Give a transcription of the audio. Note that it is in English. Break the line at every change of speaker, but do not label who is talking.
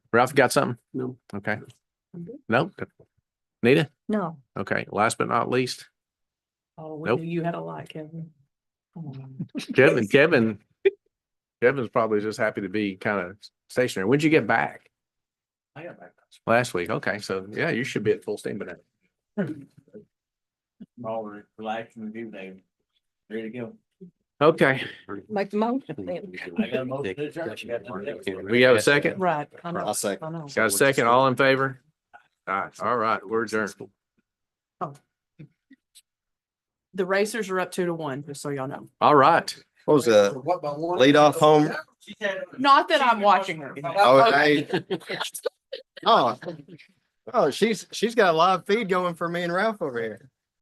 Ralph, you got something?
No.
Okay. No? Nita?
No.
Okay, last but not least,
Oh,
Nope.
we knew you had a lot, Kevin. Um,
Kevin, Kevin. Kevin's probably just happy to be kind of stationary. When'd you get back?
I got back.
Last week. Okay, so yeah, you should be at full steam, but
all re- relaxed and rejuvenated. Ready to go.
okay,
Make the motion.
I got a motion to adjourn. I got nothing else.
we have a second?
Right. I know,
I'll second.
I know.
Got a second? All in favor? All right, all right, we're adjourned.
The racers are up two to one, just so y'all know.
All right.
What was that? Lead off home?
She said-
Not that I'm watching her.
Oh, I- Oh, oh, she's, she's got a live feed going for me and Ralph over here.